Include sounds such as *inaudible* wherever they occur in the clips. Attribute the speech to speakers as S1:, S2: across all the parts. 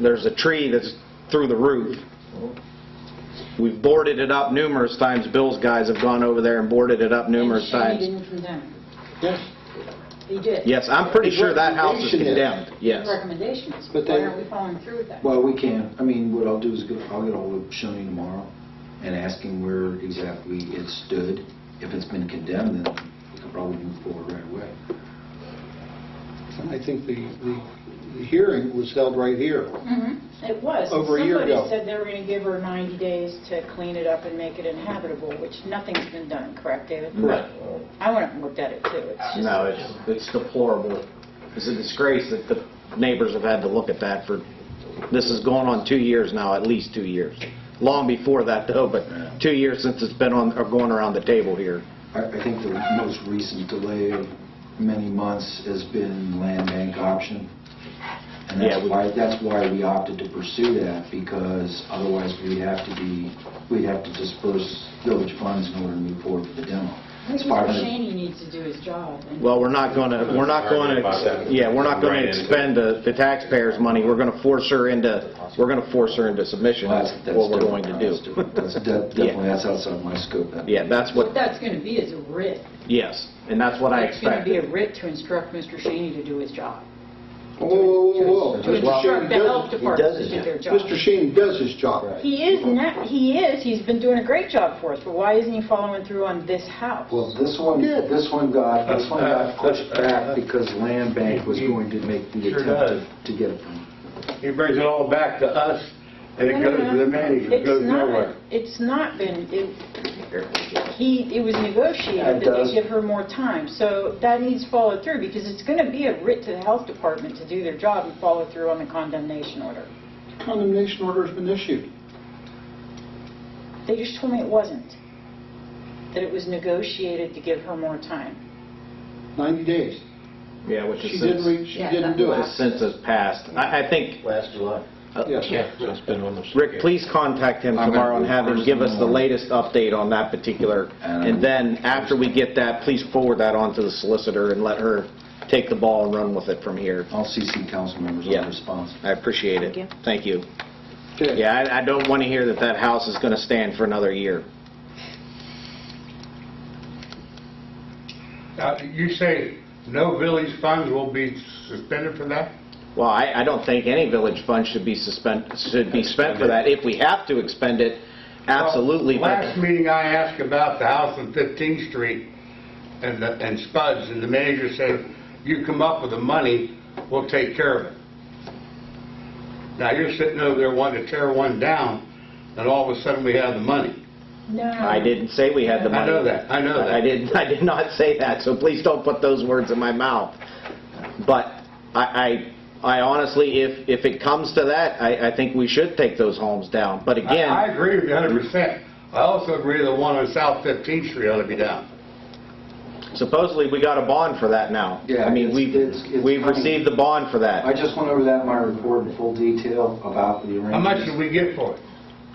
S1: there's a tree that's through the roof. We've boarded it up numerous times, Bill's guys have gone over there and boarded it up numerous
S2: And Shane
S1: times.
S2: didn't condemn.
S3: Yes,
S2: He did.
S1: Yes, I'm pretty
S3: His
S1: sure that house is
S3: recommendation is-
S1: condemned, yes.
S2: His recommendation is,
S3: But
S2: why
S3: they-
S2: aren't we following through with that?
S4: Well, we can. I mean, what I'll do is go, I'll get all of Shoney tomorrow and ask him where exactly it stood. If it's been condemned, then we can probably move forward right away.
S3: and I think the, the- the hearing was held right here.
S2: Mhm. It was.
S3: Over a year ago.
S2: Somebody said they were going to give her 90 days to clean it up and make it inhabitable, which nothing's been done, correct, David?
S1: Correct.
S2: I went up and looked at it, too. It's just,
S1: No, it's, it's deplorable. It's a disgrace that the neighbors have had to look at that for, this is going on two years now, at least two years. Long before that though, but two years since it's been on, or going around the table here.
S4: I I think the most recent delay of many months has been land bank option. And
S1: Yeah,
S4: that's
S1: we-
S4: why, that's why we opted to pursue that, because otherwise we'd have to be, we'd have to disperse village funds in order to move forward with the demo.
S2: I think Mr.
S4: It's 500
S2: Shaney needs to do his job. and-
S1: Well, we're not going to, we're not going to, yeah, we're not going to expend the the taxpayers' money. We're going to force her into, we're going to force her into submission.
S4: Well,
S1: That's
S4: that's- that's
S1: what we're going
S4: different.
S1: to
S4: That's
S1: do.
S4: different. That's de- Definitely, that's outside my scope.
S1: *laughs*
S4: That-
S1: Yeah, that's
S2: What
S1: what,
S2: that's going to be is a writ.
S1: yes, and that's what I
S2: It's going to be a
S1: expected.
S2: writ to instruct Mr. Shaney to do his job.
S3: Whoa, whoa, whoa, whoa.
S2: To
S3: Mr. Shane
S2: instruct the health
S3: does-
S2: department to do their job.
S3: Mr. Shane does his job.
S2: He is, not- he is, he's been doing a great job for us, but why isn't he following through on this house?
S4: Well, this one,
S3: Yeah.
S4: this one got, this one
S5: *laughs*
S4: got pushed back because land bank was going to make the
S5: Sure
S4: attempt to to get it from.
S5: He brings it all back to us, and it
S2: No, no,
S5: goes to the
S2: no.
S5: manager, it
S2: It's
S5: goes
S2: not-
S5: nowhere.
S2: It's not been, it- he, it was negotiated
S4: It
S2: that
S5: uh,
S4: does.
S2: they give her more time, so that needs followed through, because it's going to be a writ to the health department to do their job and follow through on the condemnation order.
S3: Condemnation order's been issued.
S2: They just told me it wasn't, that it was negotiated to give her more time.
S3: 90 days.
S1: Yeah, which
S3: She
S1: is
S3: didn't,
S1: since,
S3: re- she
S6: Yeah,
S3: didn't
S6: that's
S3: do
S6: the
S3: it.
S6: last-
S1: since it's passed. I I think,
S7: Last July.
S3: Yes.
S5: it's been almost...
S1: Rick, please contact him
S4: I'm gonna
S1: tomorrow and
S4: go
S1: have him
S4: first
S1: give
S4: in
S1: us the
S4: the morning.
S1: latest update on that particular.
S4: And-
S1: And then, after we get that, please forward that on to the solicitor and let her take the ball and run with it from here.
S4: I'll CC council members on
S1: Yeah.
S4: the response.
S1: I appreciate it. Thank you.
S3: Okay.
S1: Yeah, I, I don't want to hear that that house is going to stand for another year.
S5: Now, Uh, you say no village funds will be suspended for that?
S1: Well, I, I don't think any village fund should be suspend, should be spent for that. If we have to expend it, absolutely.
S5: Well,
S1: but-
S5: Last meeting I asked about the house on 15th Street and the- and Spuds, and the manager said, "You come up with the money, we'll take care of it." Now, you're sitting over there wanting to tear one down, and all of a sudden, we have the money.
S2: No.
S1: I didn't say we had the
S5: I
S1: money.
S5: know that, I know that.
S1: I did, I did not say that, so please don't put those words in my mouth. But I, I I honestly, if, if it comes to that, I, I think we should take those homes down. But
S5: I-
S1: again.
S5: I agree with you 100%. I also agree the one on South 15th Street ought to be down.
S1: Supposedly, we got a bond for that now.
S4: Yeah,
S1: I mean,
S4: it's-
S1: we've,
S4: it's- it's
S1: we've
S4: funny.
S1: received the bond for
S4: I
S1: that.
S4: just went over that in my report in full detail about the arrangements.
S5: How much did we get for it?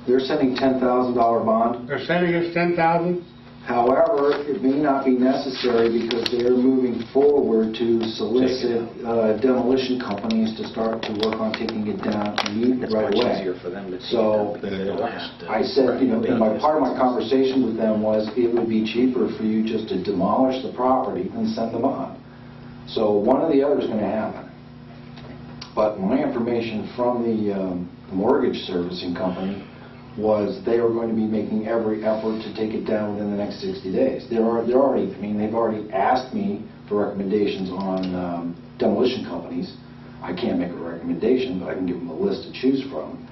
S4: They're sending $10,000 bond.
S5: They're sending us 10,000?
S4: However, it may not be necessary because they're moving forward to solicit uh, demolition companies to start to work on taking it down immediately
S1: It's
S4: right
S1: much
S4: away.
S1: easier for them to take
S4: So,
S1: it up than they don't have to.
S4: I said, you know, and my, part of my conversation with them was it would be cheaper for you just to demolish the property than send them on. So one or the other is going to happen. But my information from the um, mortgage servicing company was they were going to be making every effort to take it down within the next 60 days. They're al- they're already, I mean, they've already asked me for recommendations on um, demolition companies. I can't make a recommendation, but I can give them a list to choose from,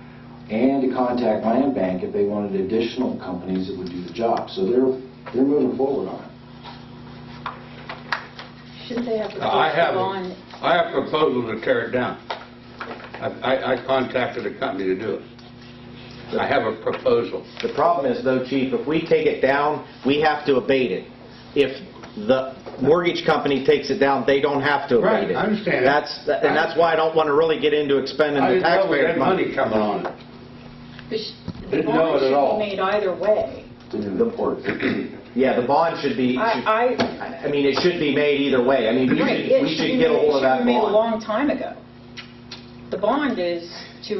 S4: and to contact Land Bank if they wanted additional companies that would do the job. So they're, they're moving forward on it.
S2: Shouldn't they have proposed
S5: Uh, I
S2: the
S5: have,
S2: bond?
S5: I have proposal to tear it down. I, I- I contacted a company to do it. I have a proposal.
S1: The problem is though, chief, if we take it down, we have to abate it. If the mortgage company takes it down, they don't have to abate
S5: Right,
S1: it.
S5: I understand that.
S1: That's, and that's why I don't want to really get into expending
S5: I
S1: the
S5: didn't know we
S1: taxpayers'
S5: had money coming on it.
S2: The sh- The
S5: Didn't know it
S2: bond
S5: at all.
S2: should be made either way.
S1: Yeah, the bond should be, should-
S2: I, I,
S1: I mean, it should be made either way. I mean, we
S2: Right,
S1: should,
S2: it
S1: we
S2: should
S1: should
S2: be
S1: get a
S2: made-
S1: hold of that
S2: It should be made a
S1: bond.
S2: long time ago. The bond is to